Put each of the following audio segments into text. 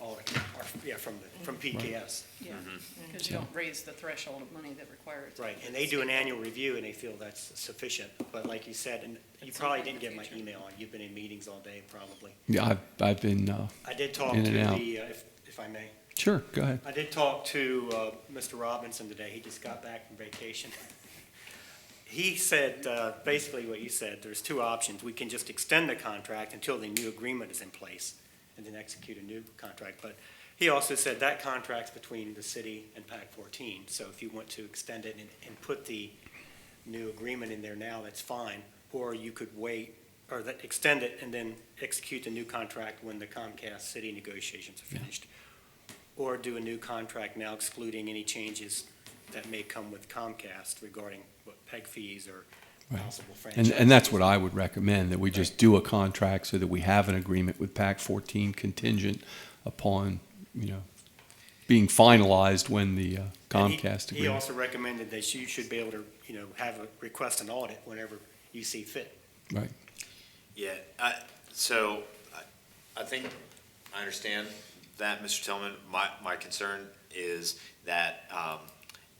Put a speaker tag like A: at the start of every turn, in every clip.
A: all, or, yeah, from, the- from PKS.
B: Yeah, because you don't raise the threshold of money that requires.
A: Mm-hmm. Right, and they do an annual review, and they feel that's sufficient, but like you said, and you
B: It's
A: probably
B: not in
A: didn't
B: the
A: get my
B: future.
A: email on, you've been in meetings all day, probably.
C: Yeah, I've, I've been, uh,
A: I did talk to
C: In and
A: the, uh,
C: out.
A: if, if I may,
C: sure, go ahead.
A: I did talk to uh, Mr. Robinson today, he just got back from vacation. He said, uh, basically what you said, there's two options, we can just extend the contract until the new agreement is in place, and then execute a new contract, but he also said that contract's between the city and PAC fourteen, so if you want to extend it and, and put the new agreement in there now, that's fine, or you could wait, or that, extend it and then execute the new contract when the Comcast city negotiations are
C: Yeah.
A: finished or do a new contract now excluding any changes that may come with Comcast regarding what peg fees or
C: Right.
A: possible franchise.
C: And, and that's what I would recommend, that we just do a contract so that we have an agreement with PAC fourteen contingent upon, you know, being finalized when the uh,
A: And he-
C: Comcast
A: He
C: agreement.
A: also recommended that you should be able to, you know, have a, request an audit whenever you see fit.
C: Right,
D: Yeah, I, so, I, I think, I understand that, Mr. Tillman. My, my concern is that, um,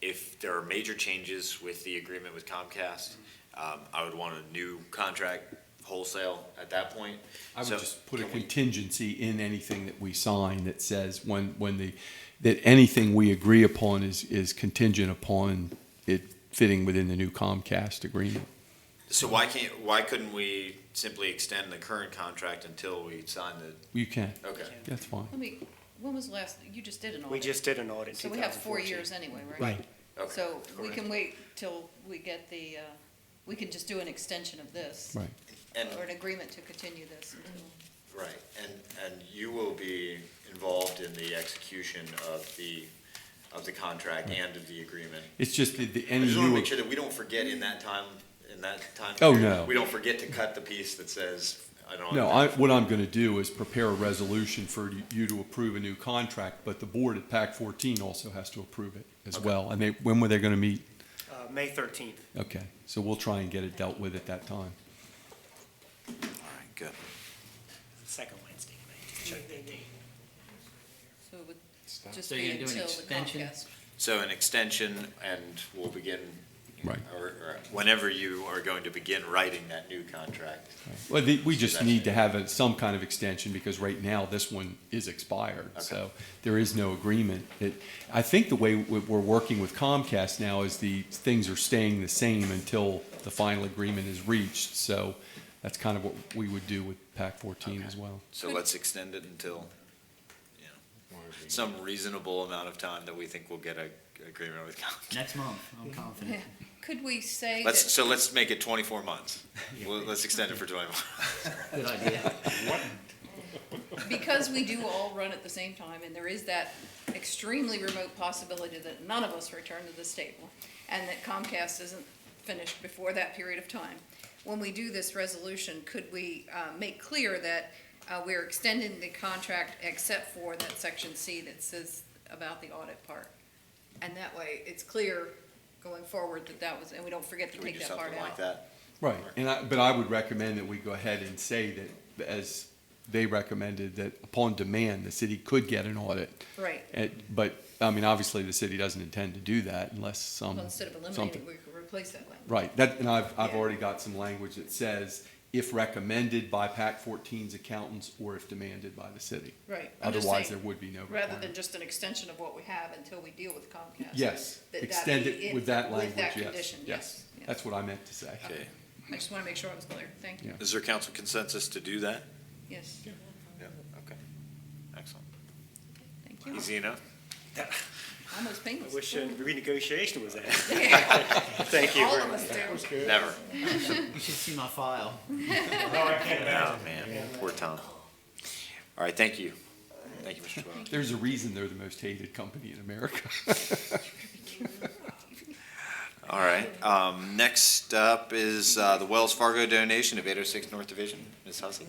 D: if there are major changes with the agreement with Comcast, um, I would want a new contract wholesale at that point.
C: I would
D: So,
C: just put a
D: can we-
C: contingency in anything that we sign that says when, when the, that anything we agree upon is, is contingent upon it fitting within the new Comcast agreement.
D: So why can't, why couldn't we simply extend the current contract until we sign the,
C: You can,
D: okay.
C: that's fine.
B: Let me, when was the last, you just did an audit.
A: We just did an audit in
B: So we have four
A: 2014.
B: years anyway, right?
A: Right.
D: okay,
B: So we
D: correct.
B: can wait till we get the, uh, we can just do an extension of this.
C: Right.
D: And-
B: Or an agreement to continue this until,
D: Right, and, and you will be involved in the execution of the, of the contract and of the agreement.
C: It's just the, the
D: I
C: any
D: just want to
C: new,
D: make sure that we don't forget in that time, in that time.
C: Oh,
D: period,
C: no.
D: We don't forget to cut the piece that says, I don't.
C: no, I, what I'm gonna do is prepare a resolution for you- you to approve a new contract, but the board at PAC fourteen also has to approve it as well. And they, when were they gonna meet?
A: Uh, May thirteenth.
C: Okay, so we'll try and get it dealt with at that time.
D: right, good.
A: Second Wednesday, May. Just check that date.
B: so it would just
E: So you're
B: be
E: gonna do an
B: until the
E: extension?
B: Comcast.
D: So an extension, and we'll begin.
C: Right.
D: Or, or whenever you are going to begin writing that new contract.
C: Well, the, we just need to have a, some kind of extension because right now this one is expired. So there is no agreement. It, I think the way we- we're working with Comcast now is the things are staying the same until the final agreement is reached. So that's kind of what we would do with PAC 14 as well.
D: So let's extend it until, you know, some reasonable amount of time that we think we'll get a agreement with Comcast.
E: Next month, I'm confident.
B: Yeah. Could we say that?
D: Let's, so let's make it twenty-four months. Well, let's extend it for twenty-four.
E: Good idea.
B: because we do all run at the same time, and there is that extremely remote possibility that none of us return to this table, and that Comcast isn't finished before that period of time. When we do this resolution, could we uh, make clear that uh, we're extending the contract except for that section C that says about the audit part? And that way, it's clear going forward that that was, and we don't forget to
D: Can we
B: take
D: do
B: that part
D: something like
B: out.
D: that?
C: Right. And I, but I would recommend that we go ahead and say that as they recommended that upon demand, the city could get an audit.
B: Right,
C: It, but, I mean, obviously the city doesn't intend to do that unless some,
B: well, instead of eliminating,
C: something.
B: we could replace that language.
C: Right, that, and I've, I've
B: Yeah.
C: already got some language that says, if recommended by PAC 14's accountants or if demanded by the city.
B: Right. I'm just
C: Otherwise,
B: saying-
C: there would be no requirement.
B: rather than just an extension of what we have until we deal with Comcast.
C: Yes,
B: that that
C: extend
B: be
C: it
B: in-
C: with that language,
B: With that
C: yes,
B: condition,
C: yes.
B: yes. yes.
C: That's what I meant to say.
D: Okay.
B: I just want to make sure I was clear, thank you,
C: Yeah.
D: Is there council consensus to do that?
B: yes,
D: Yeah, okay. Excellent.
B: thank you.
D: Easy enough?
B: Almost
A: I
B: painless.
A: wish uh, renegotiation was that.
B: Yeah,
A: Thank you
B: All
A: very
B: of
A: much.
B: us do.
D: Never.
E: You should see my file.
D: Oh, man, poor Tom. All right, thank you. Thank you, Mr. Twelve.
C: There's a reason they're the most hated company in America.
D: All right, um, next up is, uh, the Wells Fargo donation of eight oh six North Division. Ms. Hussey?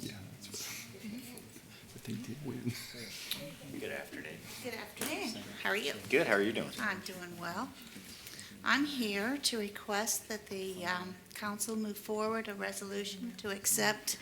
C: Yeah, that's what- But they did win.
D: Good afternoon.
F: Good afternoon. How are you?
D: Good, how are you doing?
F: I'm doing well. I'm here to request that the um, council move forward a resolution to accept